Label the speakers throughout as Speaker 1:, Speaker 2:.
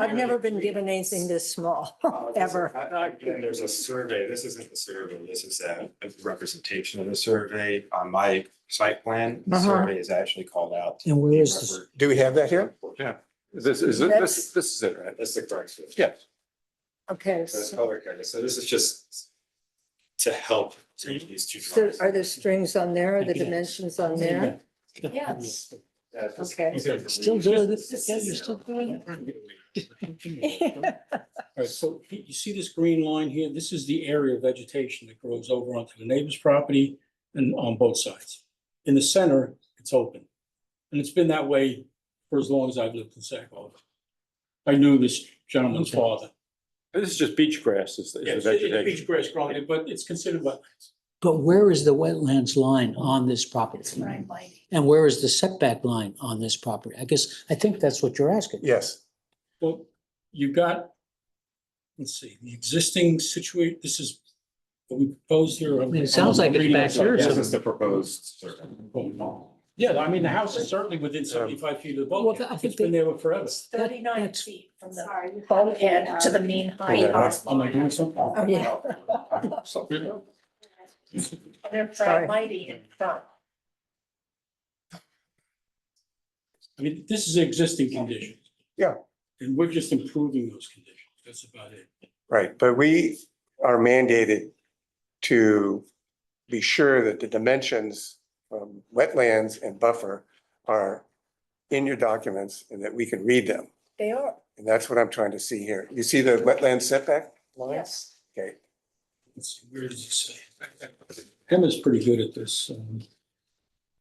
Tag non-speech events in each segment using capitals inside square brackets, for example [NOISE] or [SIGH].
Speaker 1: I've never been given anything this small,
Speaker 2: Oh,
Speaker 1: [LAUGHS] ever.
Speaker 3: Oh, I- I- again, There's a survey, this isn't the survey, this is a a representation of the survey on my site plan. The
Speaker 1: Uh-huh.
Speaker 3: survey is actually called out.
Speaker 4: And where is this?
Speaker 5: Do we have that here?
Speaker 6: Yeah, is this, is this- this, this is it, right?
Speaker 3: That's the correct. survey.
Speaker 6: Yes.
Speaker 1: Okay,
Speaker 3: So it's
Speaker 1: so
Speaker 3: color coded, so this is just to help change these two.
Speaker 1: so
Speaker 3: drawings.
Speaker 1: are the strings on there, are the dimensions on there? [LAUGHS]
Speaker 2: Yes.
Speaker 3: Yeah, it's just
Speaker 1: Okay.
Speaker 3: easier for me.
Speaker 4: Still doing it? Yeah, you're still doing
Speaker 1: Yeah.
Speaker 2: All right, so you you see this green line here? This is the area of vegetation that grows over onto the neighbor's property and on both sides. In the center, it's open. And it's been that way for as long as I've lived in Sac Harbor. I knew this gentleman's father.
Speaker 6: This is just beach grass is the is the
Speaker 2: Yes, it- it's
Speaker 6: vegetation.
Speaker 2: Beach grass growing, there, but it's considered wetlands.
Speaker 4: But where is the wetlands line on this property? And where is the setback line on this property? I guess, I think that's what you're asking.
Speaker 5: Yes.
Speaker 2: Well, you got, let's see, the existing situate, this is what we proposed here.
Speaker 4: mean, it sounds like it's
Speaker 2: I'm reading
Speaker 4: back
Speaker 2: off of-
Speaker 4: here
Speaker 3: This is the proposed survey.
Speaker 1: Oh,
Speaker 2: Yeah, I mean, the house is certainly within seventy-five feet of the boat.
Speaker 4: Well, I think
Speaker 2: It's been there forever.
Speaker 7: Thirty-nine
Speaker 4: That's-
Speaker 7: feet from the
Speaker 8: Sorry. you
Speaker 7: boat
Speaker 8: have
Speaker 7: end
Speaker 8: a,
Speaker 7: to the
Speaker 8: um,
Speaker 7: mean height.
Speaker 2: Am I doing something?
Speaker 1: Oh,
Speaker 3: [LAUGHS]
Speaker 1: yeah. Oh,
Speaker 7: They're
Speaker 1: Sorry.
Speaker 7: bright lighting in front.
Speaker 2: I mean, this is existing conditions.
Speaker 5: Yeah.
Speaker 2: And we're just improving those conditions. That's about it.
Speaker 5: Right, but we are mandated to be sure that the dimensions from wetlands and buffer are in your documents and that we can read them.
Speaker 1: They are,
Speaker 5: And that's what I'm trying to see here. You see the wetland setback line?
Speaker 1: yes.
Speaker 5: Okay,
Speaker 2: Let's see, where does it say? Tim is pretty good at this. um,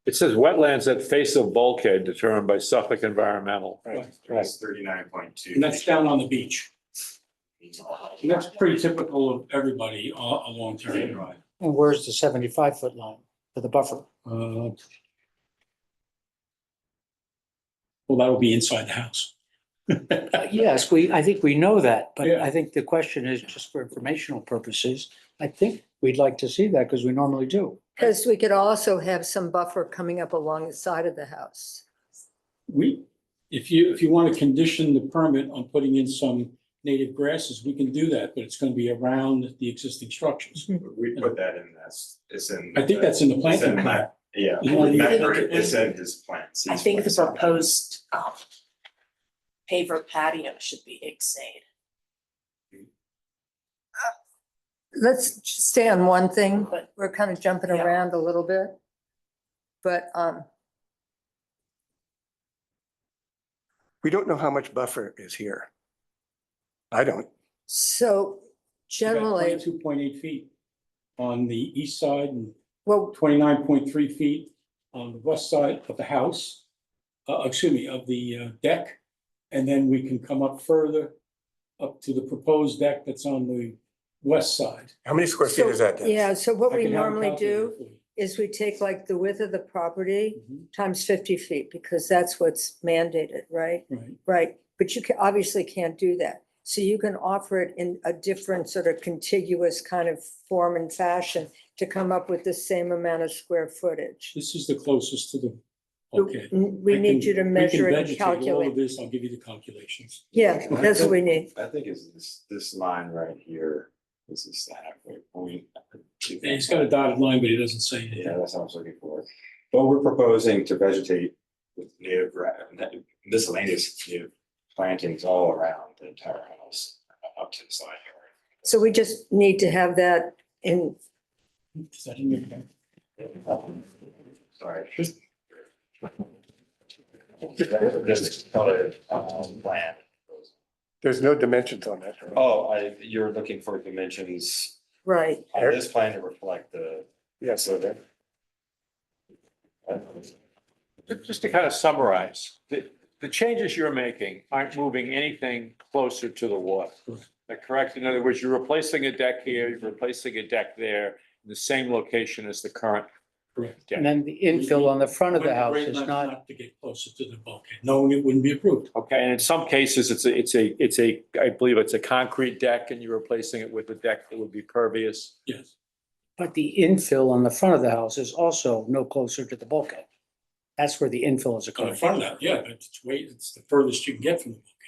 Speaker 6: It says wetlands that face a bulkhead determined by Suffolk Environmental.
Speaker 3: Right, It's thirty-nine point two.
Speaker 2: And that's down on the beach. And that's pretty typical of everybody uh, a- along Terry Drive.
Speaker 4: And where's the seventy-five foot line for the buffer?
Speaker 2: Uh, Well, that would be inside the house.
Speaker 4: Uh, Yes, we, I think we know that, but
Speaker 2: Yeah.
Speaker 4: I think the question is just for informational purposes. I think we'd like to see that because we normally do.
Speaker 1: Because we could also have some buffer coming up along the side of the house.
Speaker 2: We, if you, if you want to condition the permit on putting in some native grasses, we can do that, but it's going to be around the existing structures.
Speaker 3: We put that in, that's, it's in.
Speaker 2: I think that's in the
Speaker 3: It's
Speaker 2: planting
Speaker 3: in
Speaker 2: plan.
Speaker 3: that- Yeah,
Speaker 2: You want to-
Speaker 3: remember, it, it's in his plans.
Speaker 8: I think the proposed, um, paver patio should be exceed.
Speaker 1: Let's just stay on one thing, but
Speaker 8: But-
Speaker 1: we're kind of jumping
Speaker 8: Yeah.
Speaker 1: around a little bit. But, um,
Speaker 5: we don't know how much buffer is here. I don't.
Speaker 1: so generally,
Speaker 2: Two point eight feet on the east side and
Speaker 1: well,
Speaker 2: twenty-nine point three feet on the west side of the house. Uh, excuse me, of the uh, deck, and then we can come up further up to the proposed deck that's on the west side.
Speaker 5: How many square feet
Speaker 1: So,
Speaker 5: is that, Dennis?
Speaker 1: yeah, so what
Speaker 2: I
Speaker 1: we
Speaker 2: can have a
Speaker 1: normally
Speaker 2: calculator
Speaker 1: do
Speaker 2: for you.
Speaker 1: is we take like the width of the property
Speaker 2: Mhm,
Speaker 1: times fifty feet, because that's what's mandated, right?
Speaker 2: Right.
Speaker 1: Right, but you ca obviously can't do that. So you can offer it in a different sort of contiguous kind of form and fashion to come up with the same amount of square footage.
Speaker 2: This is the closest to the, okay.
Speaker 1: N- We
Speaker 2: I
Speaker 1: need
Speaker 2: can-
Speaker 1: you to
Speaker 2: we can
Speaker 1: measure it and
Speaker 2: vegetate all of
Speaker 1: calculate.
Speaker 2: This, I'll give you the calculations.
Speaker 1: Yeah, that's what we need.
Speaker 3: I think is this, this line right here, this is the halfway point.
Speaker 2: And He's got a dotted line, but he doesn't say it.
Speaker 3: Yeah, that's what I was looking for. But we're proposing to vegetate with native, gra- na- miscellaneous native plantings all around the entire house, uh, up to the side yard.
Speaker 1: So we just need to have that in,
Speaker 2: Is that in your-
Speaker 3: Sorry. Just colored, um, plan.
Speaker 5: There's no dimensions on that.
Speaker 3: Oh, I, you're looking for dimensions
Speaker 1: right,
Speaker 3: on this plan to reflect the
Speaker 5: Yes.
Speaker 3: survey?
Speaker 6: Just to kind of summarize, the, the changes you're making aren't moving anything closer to the water. Is that correct? In other words, you're replacing a deck here, you're replacing a deck there, in the same location as the current.
Speaker 2: Correct.
Speaker 4: And then the infill on the front of
Speaker 2: When
Speaker 4: the house
Speaker 2: grade
Speaker 4: is
Speaker 2: line's
Speaker 4: not.
Speaker 2: To get closer to the bulkhead, knowing it wouldn't be approved.
Speaker 6: Okay, and in some cases, it's a, it's a, it's a, I believe it's a concrete deck and you're replacing it with a deck that would be pervious.
Speaker 2: Yes.
Speaker 4: But the infill on the front of the house is also no closer to the bulkhead. That's where the infill is
Speaker 2: On the
Speaker 4: occurring.
Speaker 2: front of that, yeah, but it's way, it's the furthest you can get from the bulkhead.